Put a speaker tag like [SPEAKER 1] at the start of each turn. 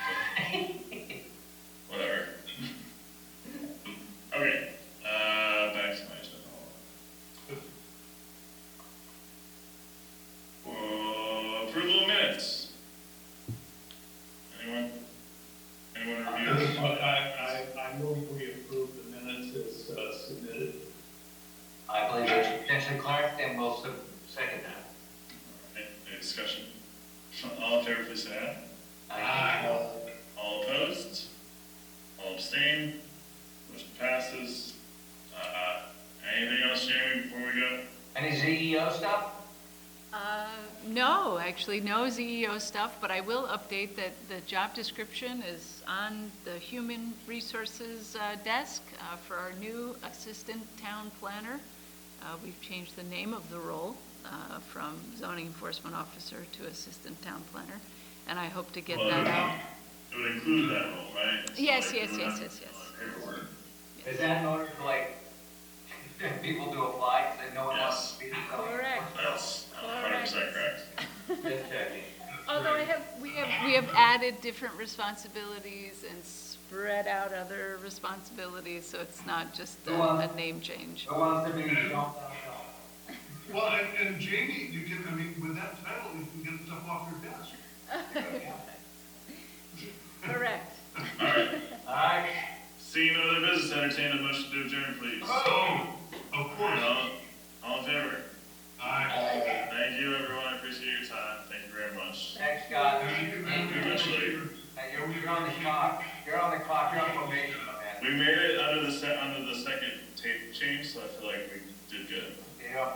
[SPEAKER 1] Uh,
[SPEAKER 2] uh, Uh, Anyone reviews?
[SPEAKER 1] I, I, I move we approve the minutes as uh, submitted.
[SPEAKER 3] I believe there's potentially Clark, then we'll sub- second that.
[SPEAKER 2] Any any discussion? All in favor, please say
[SPEAKER 3] I
[SPEAKER 2] aye.
[SPEAKER 3] uh,
[SPEAKER 2] All opposed? All abstain? Motion passes. Uh, anything else, Jamie, before we go?
[SPEAKER 3] Any ZEO stuff?
[SPEAKER 4] Uh, No, actually, no ZEO stuff, but I will update that the job description is on the Human Resources uh, desk uh, for our new Assistant Town Planner. Uh, We've changed the name of the role uh, from Zoning Enforcement Officer to Assistant Town Planner, and I hope to get
[SPEAKER 2] Well,
[SPEAKER 4] that
[SPEAKER 2] it
[SPEAKER 4] out.
[SPEAKER 2] would- It would include that role, right? So,
[SPEAKER 4] Yes,
[SPEAKER 2] like,
[SPEAKER 4] yes,
[SPEAKER 2] we would
[SPEAKER 4] yes,
[SPEAKER 2] have
[SPEAKER 4] yes, yes.
[SPEAKER 2] all the paperwork.
[SPEAKER 3] Is that in order to like, people to apply, because no one wants to be the zoning?
[SPEAKER 4] Correct.
[SPEAKER 2] That's Uh, hundred percent correct.
[SPEAKER 3] Just checking.
[SPEAKER 4] Although I have, we have, we have added different responsibilities and spread out other responsibilities, so it's not just a
[SPEAKER 3] Go on.
[SPEAKER 4] a name change.
[SPEAKER 3] Who wants to be the zoning?
[SPEAKER 5] Well, and, and Jamie, you can, I mean, with that title, you can get stuff off your desk.
[SPEAKER 4] Correct.
[SPEAKER 2] All right,
[SPEAKER 3] All right,
[SPEAKER 2] seeing no other business, entertain a motion to adjourn, please.
[SPEAKER 5] Oh, of course.
[SPEAKER 2] All, all in favor?
[SPEAKER 5] Aye.
[SPEAKER 2] Thank you, everyone, I appreciate your time, thank you very much.
[SPEAKER 3] thanks, Scott.
[SPEAKER 5] Thank you
[SPEAKER 3] Thank
[SPEAKER 5] very much.
[SPEAKER 3] Hey, You're, you're on the clock, you're on the clock, you're on probation, my man.
[SPEAKER 2] We made it under the se, under the second tape change, so I feel like we did good.